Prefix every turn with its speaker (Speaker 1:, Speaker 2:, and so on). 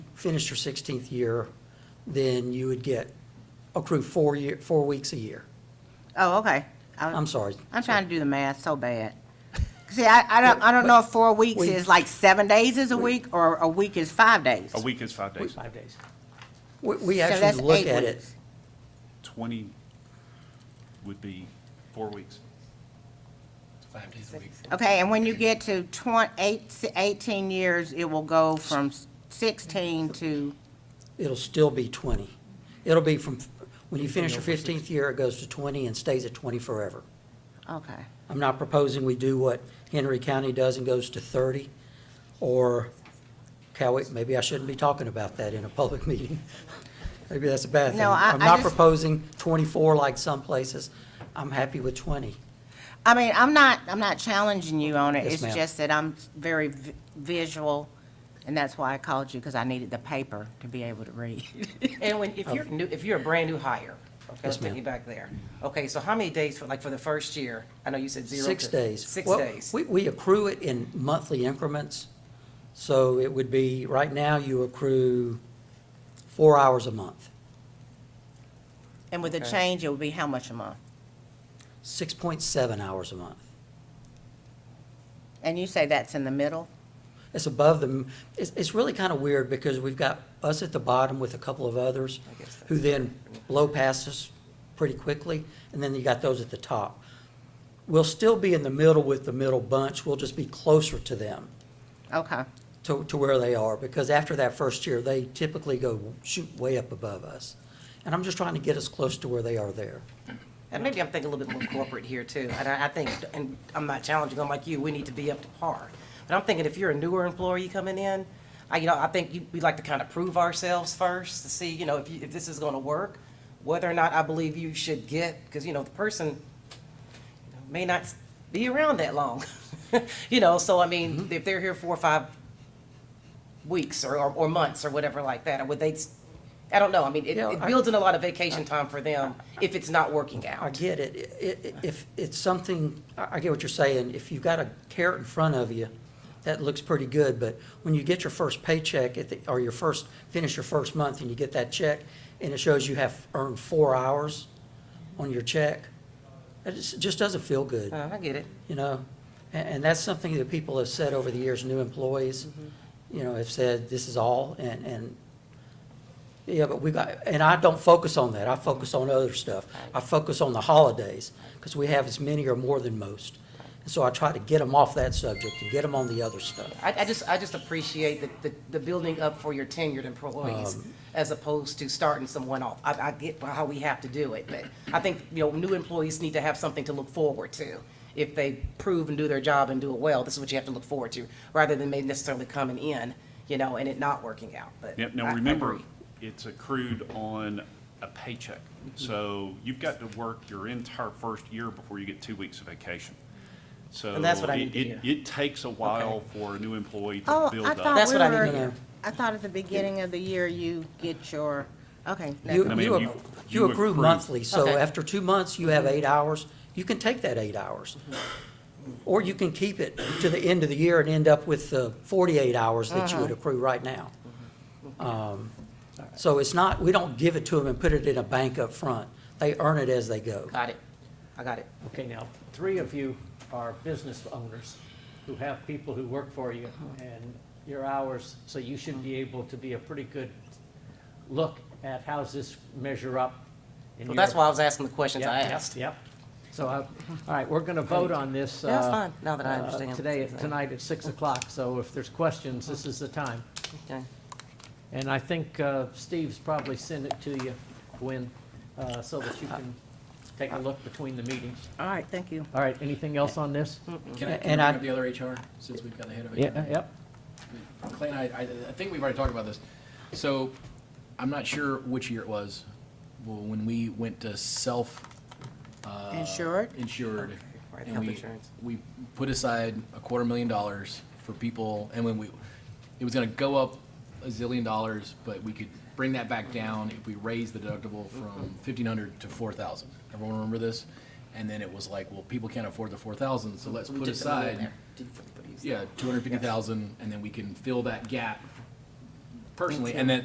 Speaker 1: finished your 16th year, then you would get accrue four year, four weeks a year.
Speaker 2: Oh, okay. I-
Speaker 1: I'm sorry.
Speaker 2: I'm trying to do the math so bad. See, I, I don't, I don't know if four weeks
Speaker 1: We-
Speaker 2: is like seven days is a week, or a week is five days.
Speaker 3: A week is five days.
Speaker 4: Five days.
Speaker 1: We, we
Speaker 2: So that's
Speaker 1: actually look
Speaker 2: eight
Speaker 1: at it,
Speaker 2: weeks.
Speaker 3: Twenty would be four weeks.
Speaker 4: Five days a week.
Speaker 2: Okay, and when you get to twen, eight, eighteen years, it will go from sixteen to,
Speaker 1: it'll still be 20. It'll be from, when you finish your 15th year, it goes to 20 and stays at 20 forever.
Speaker 2: okay.
Speaker 1: I'm not proposing we do what Henry County does and goes to 30, or Cowie, maybe I shouldn't be talking about that in a public meeting. Maybe that's a bad thing.
Speaker 2: No, I-
Speaker 1: am
Speaker 2: I
Speaker 1: not
Speaker 2: just-
Speaker 1: proposing 24 like some places. I'm happy with 20.
Speaker 2: I mean, I'm not, I'm not challenging you on it.
Speaker 1: Yes,
Speaker 2: It's
Speaker 1: ma'am.
Speaker 2: just that I'm very vi- visual, and that's why I called you, because I needed the paper to be able to read.
Speaker 4: And when, if you're new, if you're a brand-new hire, okay, let's
Speaker 1: ma'am.
Speaker 4: take you back there. Okay, so how many days for, like, for the first year? I know you said zero.
Speaker 1: Six
Speaker 4: to-
Speaker 1: days.
Speaker 4: Six
Speaker 1: Well,
Speaker 4: days.
Speaker 1: We, we accrue it in monthly increments, so it would be, right now, you accrue four hours a month,
Speaker 2: And with the
Speaker 4: Okay.
Speaker 2: change, it would be how much a month?
Speaker 1: 6.7 hours a month.
Speaker 2: And you say that's in the middle?
Speaker 1: It's above them. It's, it's really kind of weird because we've got us at the bottom with a couple of others
Speaker 4: I guess that's-
Speaker 1: who then blow past us pretty quickly, and then you got those at the top. We'll still be in the middle with the middle bunch. We'll just be closer to them,
Speaker 2: Okay,
Speaker 1: to, to where they are, because after that first year, they typically go shoot way up above us. And I'm just trying to get us close to where they are there.
Speaker 4: And maybe I'm thinking a little bit more corporate here too. And I, I think, and I'm not challenging, I'm like you, we need to be up to par. But I'm thinking if you're a newer employee coming in, I, you know, I think you- we'd like to kind of prove ourselves first to see, you know, if, you- if this is going to work, whether or not I believe you should get, because, you know, the person you know, may not be around that long. You know, so I mean,
Speaker 1: Mm-hmm.
Speaker 4: if they're here four or five weeks or, or- or months or whatever like that, would they, s- I don't know. I mean, it,
Speaker 1: Yeah,
Speaker 4: it
Speaker 1: I-
Speaker 4: builds in a lot of vacation time for them if it's not working out.
Speaker 1: I get it. I- i- If it's something, I I get what you're saying. If you've got a carrot in front of you, that looks pretty good. But when you get your first paycheck at the, or your first, finish your first month and you get that check and it shows you have earned four hours on your check, it just, just doesn't feel good,
Speaker 4: Uh, I get it.
Speaker 1: you know? And, and that's something that people have said over the years, new employees, you know, have said, this is all. And, and yeah, but we got, and I don't focus on that. I focus on other stuff. I focus on the holidays, because we have as many or more than most. And so I try to get them off that subject and get them on the other stuff.
Speaker 4: I, I just, I just appreciate the, the, the building up for your tenured employees as opposed to starting someone off. I, I get how we have to do it, but I think, you know, new employees need to have something to look forward to. If they prove and do their job and do it well, this is what you have to look forward to, rather than maybe necessarily coming in, you know, and it not working out, but.
Speaker 3: Yep,
Speaker 4: I- I
Speaker 3: now remember,
Speaker 4: agree.
Speaker 3: it's accrued on a paycheck.
Speaker 4: Mm-hmm.
Speaker 3: So you've got to work your entire first year before you get two weeks of vacation. So.
Speaker 4: And that's what I need to
Speaker 3: it- it-
Speaker 4: hear.
Speaker 3: It takes a while for a new employee to
Speaker 2: Oh,
Speaker 3: build
Speaker 2: I
Speaker 3: up.
Speaker 2: thought
Speaker 4: That's
Speaker 2: we
Speaker 4: what I need to
Speaker 2: were-
Speaker 1: know.
Speaker 2: I thought at the beginning of the year, you get your, okay. never
Speaker 1: You,
Speaker 3: I
Speaker 2: mind.
Speaker 3: mean,
Speaker 1: you,
Speaker 3: you-
Speaker 1: ac- you
Speaker 3: you
Speaker 1: accrue
Speaker 3: accrue.
Speaker 1: monthly, so
Speaker 4: Okay.
Speaker 1: after two months, you have eight hours. You can take that eight hours. Or you can keep it to the end of the year and end up with the forty-eight hours that you
Speaker 4: Uh-huh.
Speaker 1: would accrue right now.
Speaker 4: Mm-hmm.
Speaker 1: Um, So it's not, we don't give it to them and put it in a bank up front. They earn it as they go.
Speaker 4: Got it. I got it.
Speaker 5: Okay, now, three of you are business owners who have people who work for you and your hours, so you should be able to be a pretty good look at how's this measure up in
Speaker 4: Well,
Speaker 5: your.
Speaker 4: that's why I was asking the questions I
Speaker 5: Yep, yep,
Speaker 4: asked.
Speaker 5: Yep. So, uh, all right, we're going to vote on this.
Speaker 4: That's
Speaker 5: uh,
Speaker 4: fine, now that I
Speaker 5: uh,
Speaker 4: understand.
Speaker 5: Today, tonight at 6 o'clock, so if there's questions, this is the time.
Speaker 4: Uh-huh. Okay.
Speaker 5: And I think uh, Steve's probably sent it to you, Gwen, uh, so that you can take a look between the meetings.
Speaker 2: All right, thank you.
Speaker 5: All right, anything else on this?
Speaker 6: Can I,
Speaker 1: And
Speaker 6: can I
Speaker 1: I-
Speaker 6: bring up the other HR, since we've got the head of HR?
Speaker 5: Yeah, yep.
Speaker 6: Clay and I, I, I think we've already talked about this. So, I'm not sure which year it was, well, when we went to self, uh.
Speaker 2: Insured?
Speaker 6: Insured.
Speaker 4: right,
Speaker 6: and
Speaker 4: health
Speaker 6: we-
Speaker 4: insurance.
Speaker 6: We put aside a quarter million dollars for people, and when we, it was gonna go up a zillion dollars, but we could bring that back down if we raised the deductible from fifteen hundred to four thousand. Everyone remember this? And then it was like, well, people can't afford the four thousand, so let's
Speaker 4: We
Speaker 6: put
Speaker 4: took the money in
Speaker 6: aside
Speaker 4: there. Didn't put the-
Speaker 6: yeah, two hundred fifty thousand, and then we can fill that gap personally, and then